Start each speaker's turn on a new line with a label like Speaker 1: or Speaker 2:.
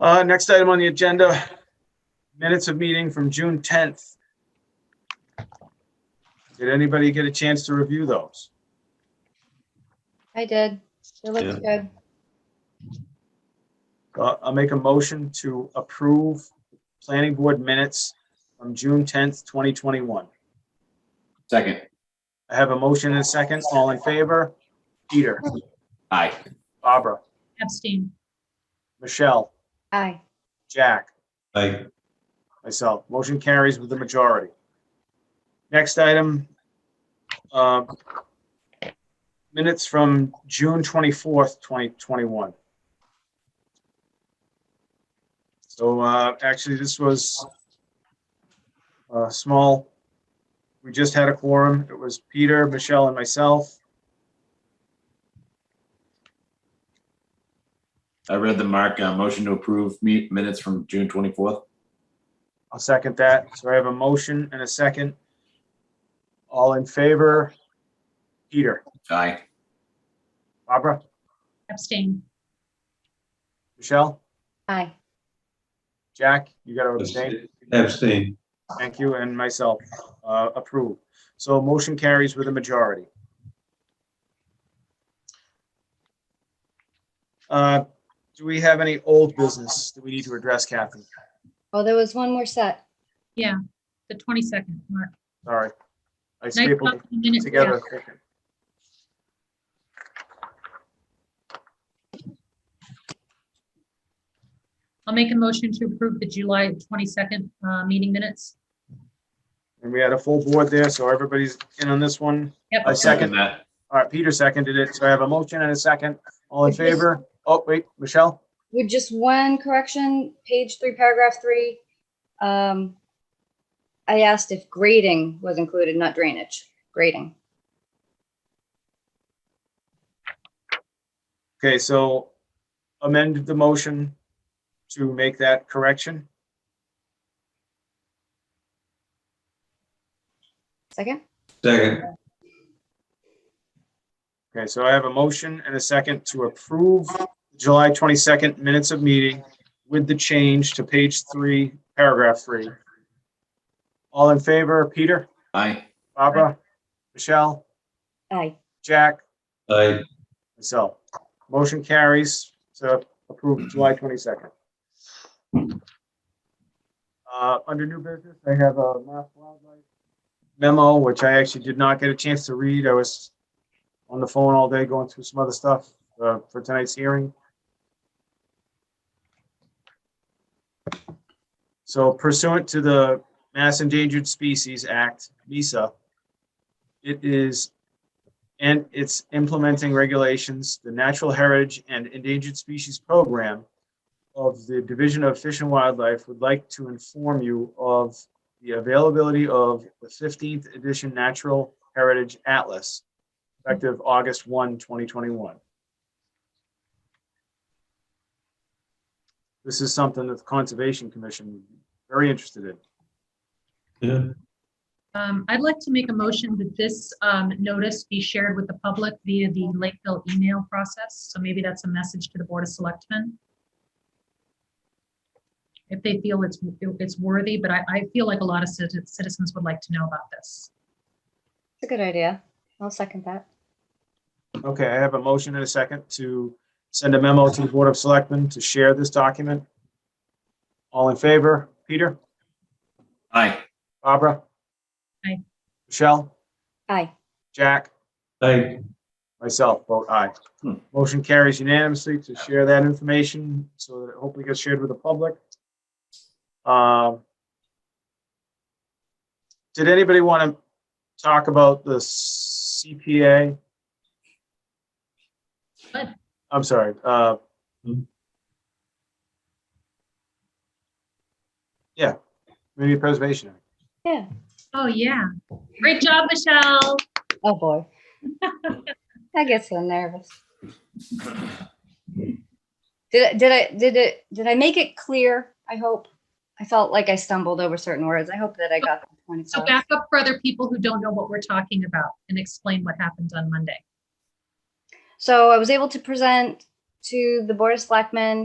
Speaker 1: Uh, next item on the agenda, minutes of meeting from June tenth. Did anybody get a chance to review those?
Speaker 2: I did. It looks good.
Speaker 1: Uh, I'll make a motion to approve planning board minutes from June tenth, twenty twenty-one.
Speaker 3: Second,
Speaker 1: I have a motion and a second. All in favor? Peter,
Speaker 3: aye.
Speaker 1: Barbara,
Speaker 4: Abstain.
Speaker 1: Michelle,
Speaker 2: Aye.
Speaker 1: Jack,
Speaker 5: Aye.
Speaker 1: myself. Motion carries with the majority. Next item. uh, Minutes from June twenty-fourth, twenty twenty-one. So uh, actually, this was a small, we just had a quorum. It was Peter, Michelle, and myself.
Speaker 3: I read the mark, uh, motion to approve me- minutes from June twenty-fourth.
Speaker 1: I'll second that. So I have a motion and a second. All in favor? Peter,
Speaker 3: Aye.
Speaker 1: Barbara,
Speaker 4: Abstain.
Speaker 1: Michelle,
Speaker 2: Aye.
Speaker 1: Jack, you got to abstain.
Speaker 5: Abstain.
Speaker 1: Thank you, and myself, uh, approve. So motion carries with a majority. Uh, do we have any old business that we need to address, Kathy?
Speaker 2: Oh, there was one more set.
Speaker 4: The 22nd, Mark.
Speaker 1: Sorry. I
Speaker 4: Nice
Speaker 1: stapled
Speaker 4: talking minutes,
Speaker 1: together.
Speaker 4: yeah. I'll make a motion to approve the July 22nd uh, meeting minutes.
Speaker 1: And we had a full board there, so everybody's in on this one.
Speaker 4: Yep.
Speaker 1: I second.
Speaker 3: that.
Speaker 1: All right, Peter seconded it, so I have a motion and a second. All in favor? Oh, wait, Michelle?
Speaker 2: With just one correction, page three, paragraph three. Um, I asked if grading was included, not drainage, grading.
Speaker 1: Okay, so amend the motion to make that correction.
Speaker 2: Second?
Speaker 5: Second.
Speaker 1: Okay, so I have a motion and a second to approve July 22nd minutes of meeting with the change to page three, paragraph three. All in favor, Peter,
Speaker 3: Aye.
Speaker 1: Barbara, Michelle,
Speaker 2: Aye.
Speaker 1: Jack,
Speaker 5: Aye.
Speaker 1: myself. Motion carries to approve July 22nd. Uh, Under new business, I have a mass wildlife memo, which I actually did not get a chance to read. I was on the phone all day going through some other stuff uh, for tonight's hearing. So pursuant to the Mass Endangered Species Act, MISA, it is and it's implementing regulations, the Natural Heritage and Endangered Species Program of the Division of Fish and Wildlife would like to inform you of the availability of the fifteenth edition Natural Heritage Atlas effective August 1, 2021. This is something that the Conservation Commission would be very interested in.
Speaker 5: Yeah.
Speaker 4: Um, I'd like to make a motion that this um, notice be shared with the public via the Lakeville email process. So maybe that's a message to the Board of Selectmen. If they feel it's, it's worthy, but I, I feel like a lot of citi- citizens would like to know about this.
Speaker 2: It's a good idea. I'll second that.
Speaker 1: Okay, I have a motion and a second to send a memo to the Board of Selectmen to share this document. All in favor? Peter?
Speaker 3: Aye.
Speaker 1: Barbara?
Speaker 4: Aye.
Speaker 1: Michelle?
Speaker 2: Aye.
Speaker 1: Jack?
Speaker 5: Aye.
Speaker 1: Myself, vote aye.
Speaker 3: Hmm.
Speaker 1: Motion carries unanimously to share that information so that it hopefully gets shared with the public. Um, Did anybody want to talk about the CPA?
Speaker 4: What?
Speaker 1: I'm sorry, uh.
Speaker 5: Hmm.
Speaker 1: Yeah, maybe preservation. Act.
Speaker 2: Yeah.
Speaker 4: Oh, yeah. Great job, Michelle.
Speaker 2: Oh, boy. That gets so nervous. Did, I- did I, did it, did I make it clear? I hope. I felt like I stumbled over certain words. I hope that I got the point.
Speaker 4: So
Speaker 2: across.
Speaker 4: back up for other people who don't know what we're talking about and explain what happened on Monday.
Speaker 2: So I was able to present to the Board of Selectmen